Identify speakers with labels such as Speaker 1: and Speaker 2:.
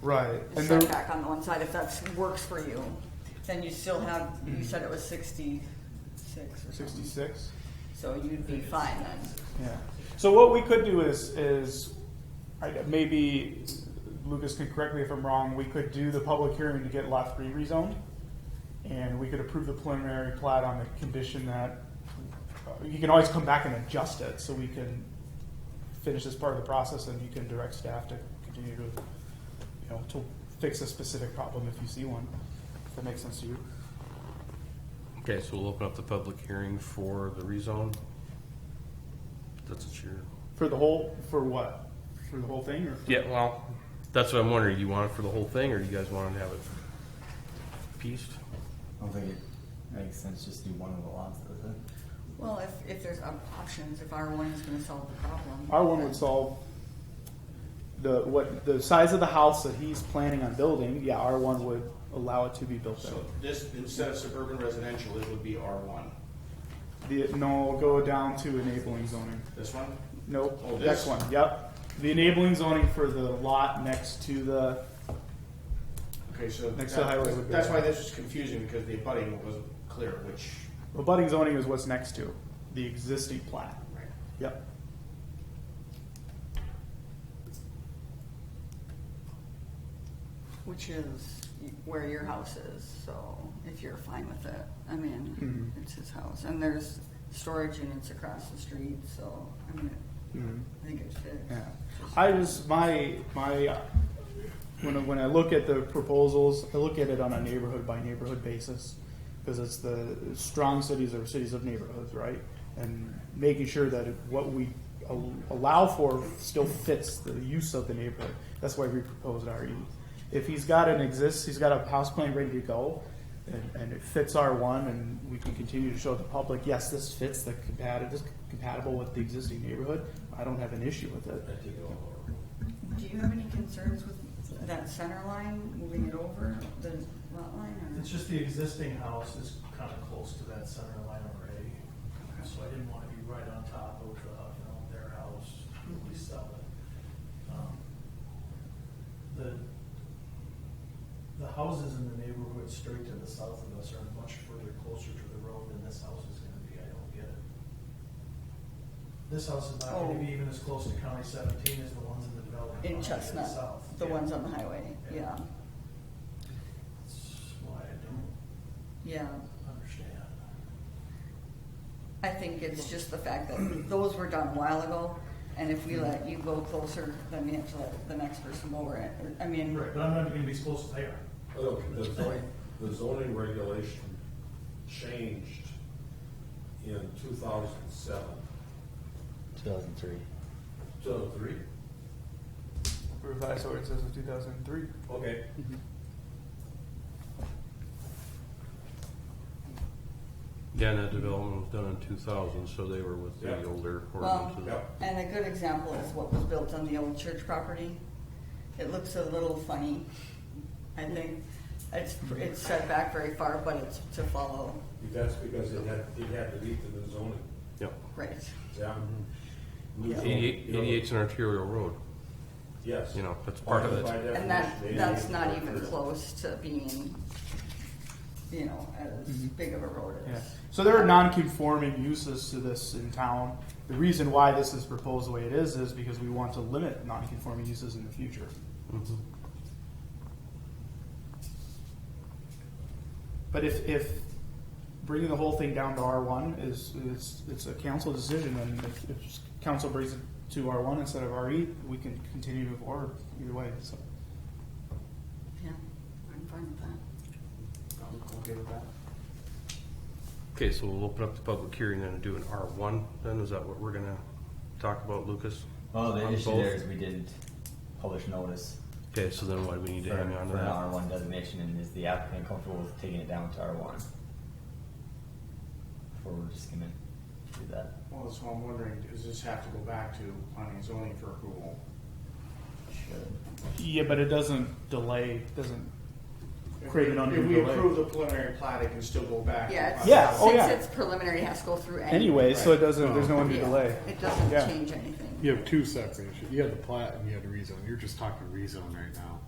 Speaker 1: Right,
Speaker 2: the
Speaker 1: and there,
Speaker 2: setback on the one side, if that works for you, then you still have, you said it was sixty-six or something.
Speaker 1: sixty-six,
Speaker 2: So you'd be fine then.
Speaker 1: yeah. So what we could do is, is, I, maybe, Lucas can correct me if I'm wrong, we could do the public hearing to get lot three rezoned. And we could approve the preliminary plat on the condition that, uh, you can always come back and adjust it, so we can finish this part of the process and you can direct staff to continue to, you know, to fix a specific problem if you see one, if that makes sense to you.
Speaker 3: Okay, so we'll open up the public hearing for the rezone. That's what you're.
Speaker 1: For the whole, for what? For the whole thing, or?
Speaker 3: Yeah, well. That's what I'm wondering. You want it for the whole thing, or you guys want to have it pieced?
Speaker 4: I don't think it makes sense just to do one of the lots, does it?
Speaker 2: Well, if, if there's op- options, if R one is gonna solve the problem.
Speaker 1: R one would solve the, what, the size of the house that he's planning on building, yeah, R one would allow it to be built
Speaker 5: So
Speaker 1: there.
Speaker 5: this, instead of suburban residential, it would be R one.
Speaker 1: The, no, go down to enabling zoning.
Speaker 5: This one?
Speaker 1: Nope,
Speaker 5: Oh,
Speaker 1: next
Speaker 5: this?
Speaker 1: one, yep. The enabling zoning for the lot next to the,
Speaker 5: Okay, so.
Speaker 1: Next to the highway would be
Speaker 5: That's
Speaker 1: that.
Speaker 5: why this was confusing, because the abutting wasn't clear, which.
Speaker 1: abutting zoning is what's next to, the existing plat. Yep.
Speaker 2: Which is where your house is, so if you're fine with it, I mean,
Speaker 1: Mhm.
Speaker 2: it's his house. And there's storage units across the street, so, I mean,
Speaker 1: Mhm.
Speaker 2: I think it fits.
Speaker 1: Yeah, I was my my when I, when I look at the proposals, I look at it on a neighborhood by neighborhood basis because it's the strong cities or cities of neighborhoods, right? And making sure that what we al- allow for still fits the use of the neighborhood. That's why we proposed RE. If he's got an exist, he's got a house plan ready to go. And, and it fits R one, and we can continue to show the public, yes, this fits the compatible, this is compatible with the existing neighborhood. I don't have an issue with it.
Speaker 2: Do you have any concerns with that center line, moving it over the lot line or?
Speaker 6: It's just the existing house is kind of close to that center line already, so I didn't want to be right on top of, uh, you know, their house, when we sell it. Um, The, the houses in the neighborhood straight to the south of us are much further closer to the road than this house is gonna be, I don't get it. This house is not gonna be even as close to County seventeen as the ones in the development.
Speaker 2: Oh. In
Speaker 6: behind it to the
Speaker 2: Chestnut,
Speaker 6: south.
Speaker 2: the
Speaker 6: Yeah.
Speaker 2: ones on the highway, yeah,
Speaker 6: Yeah. That's why I don't
Speaker 2: yeah.
Speaker 6: understand.
Speaker 2: I think it's just the fact that those were done a while ago, and if we let you go closer, then we have to let the next person lower it. I mean,
Speaker 6: Right, but I'm not gonna be as close as they are.
Speaker 7: Look, the zoning, the zoning regulation changed in two thousand seven,
Speaker 4: Two thousand three.
Speaker 7: two thousand three?
Speaker 1: Revised ordinance of two thousand and three.
Speaker 7: Okay.
Speaker 3: Yeah, and that development was done in two thousand, so they were with the
Speaker 7: Yeah.
Speaker 3: older
Speaker 2: well,
Speaker 3: ordinances.
Speaker 7: Yeah.
Speaker 2: and a good example is what was built on the old church property. It looks a little funny, I think. It's, it's set back very far, but it's to follow,
Speaker 7: That's because it had, it had to meet the new zoning,
Speaker 3: Yep.
Speaker 2: right?
Speaker 7: yeah.
Speaker 3: Mm-hmm.
Speaker 7: New zoning,
Speaker 3: Eighty-eight,
Speaker 7: you know,
Speaker 3: eighty-eight's an arterial road.
Speaker 7: Yes.
Speaker 3: you know, that's part of it.
Speaker 7: By
Speaker 2: And that,
Speaker 7: definition,
Speaker 2: that's
Speaker 7: 88
Speaker 2: not even close to being, you know, as
Speaker 1: Mm-hmm.
Speaker 2: big of a road
Speaker 1: Yeah.
Speaker 2: as.
Speaker 1: So there are non-conforming uses to this in town. The reason why this is proposed the way it is is because we want to limit non-conforming uses in the future. Mm-hmm. But if, if bringing the whole thing down to R one is, is, it's a council decision and if, if council brings it to R one instead of RE, we can continue to move forward either way, so.
Speaker 2: Yeah, I'm fine with that.
Speaker 5: I'm okay with that.
Speaker 3: Okay, so we'll open up the public hearing then and do an R one, then is that what we're gonna talk about, Lucas?
Speaker 4: Well, the
Speaker 3: On
Speaker 4: issue
Speaker 3: both?
Speaker 4: there is we didn't publish notice
Speaker 3: Okay, so then why do we need
Speaker 4: for
Speaker 3: to hang on to
Speaker 4: for an R
Speaker 3: that?
Speaker 4: one designation, and is the applicant comfortable with taking it down to R one? Or we're just gonna do that?
Speaker 5: Well, that's what I'm wondering, does this have to go back to planning and zoning for approval?
Speaker 1: Yeah, but it doesn't delay, doesn't create an undue
Speaker 5: If we
Speaker 1: delay.
Speaker 5: approve the preliminary plat, it can still go back. to
Speaker 2: Yeah,
Speaker 5: planning.
Speaker 1: Yeah,
Speaker 2: it's,
Speaker 1: oh, yeah.
Speaker 2: since it's preliminary, it has to go through anyway.
Speaker 1: Anyway, so it doesn't, there's no undue
Speaker 2: Yeah,
Speaker 1: delay.
Speaker 2: It doesn't
Speaker 1: Yeah.
Speaker 2: change anything.
Speaker 8: You have two separate issues. You had the plat and you had the rezone. You're just talking rezone right now.